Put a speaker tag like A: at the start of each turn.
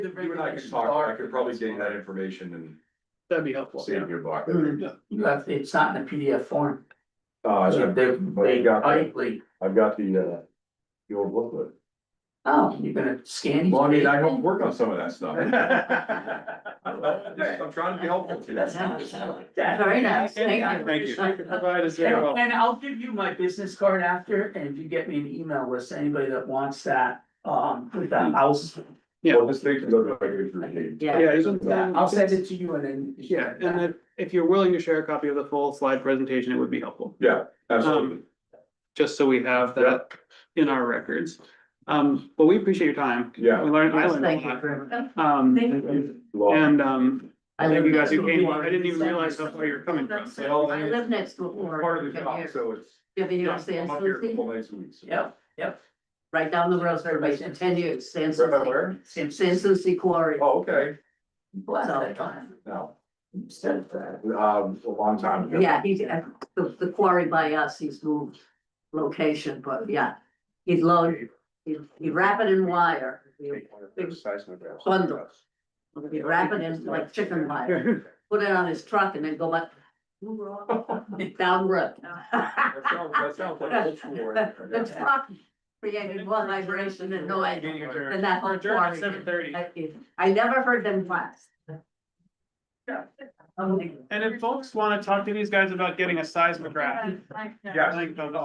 A: the
B: You and I
A: regulations
B: could talk, I
A: are.
B: could probably gain that information and
C: That'd be helpful.
B: see in your box.
D: Mm, You have, it's not in a PDF form.
B: Uh, I've
D: They,
B: but you
D: they
B: got-
D: tightly,
B: I've got the, uh, the old booklet.
D: oh, you're gonna scan. each
B: Well, I mean, I
D: page?
B: hope to work on some of that stuff. I don't know, just- I'm trying to be helpful to
D: That's
B: you.
D: nice, I like that. very nice, thank you.
C: Thank you. Provide us very well.
D: And and I'll give you my business card after, and if you get me an email list, anybody that wants that, um, with the house,
C: Yeah.
B: Well, this thing can go to my good for me.
D: yeah.
C: Yeah, isn't that?
D: I'll send it to you and then.
C: Yeah, and if, if you're willing to share a copy of the full slide presentation, it would be helpful,
B: Yeah,
C: Um,
B: absolutely.
C: just so we have that in our records. Um, but we appreciate your time.
B: Yeah.
C: We learned, I
E: Yes,
C: learned
E: thank
C: a
E: you
C: lot.
E: very much.
C: Um,
B: Well,
C: and, um,
E: I
C: thank
E: live
C: you guys
E: next
C: who
E: to a
C: came.
E: ward.
C: I didn't even realize how far you're coming from.
B: It all
E: I
B: is-
E: live next to a ward.
B: Part of the
E: right
B: job,
E: here.
B: so it's.
E: You ever hear
B: yeah,
E: of San
B: I'm up here a
E: Suzy?
B: couple nights a week. so-
D: Yep,
E: Right down the road, everybody's in ten years, San
B: Right by
E: Suzy,
B: where?
D: Sam said,
E: San Suzy Quarry.
B: Oh, okay,
D: bless that time.
B: no,
D: Said that.
B: um, a long time ago.
E: Yeah, he, uh, the, the quarry by us, he's moved location, but yeah, he'd load, he'd, he'd wrap it in wire. He'd Bundle. he'd wrap it in like chicken wire, put it on his truck and then go up down road.
B: That sounds, that sounds like old school. right there.
E: The truck created more vibration and noise than that whole quarry.
C: Seven thirty.
E: did. I never heard them last.
C: And if folks wanna talk to these guys about getting a seismograph,
B: Yes.
C: I think those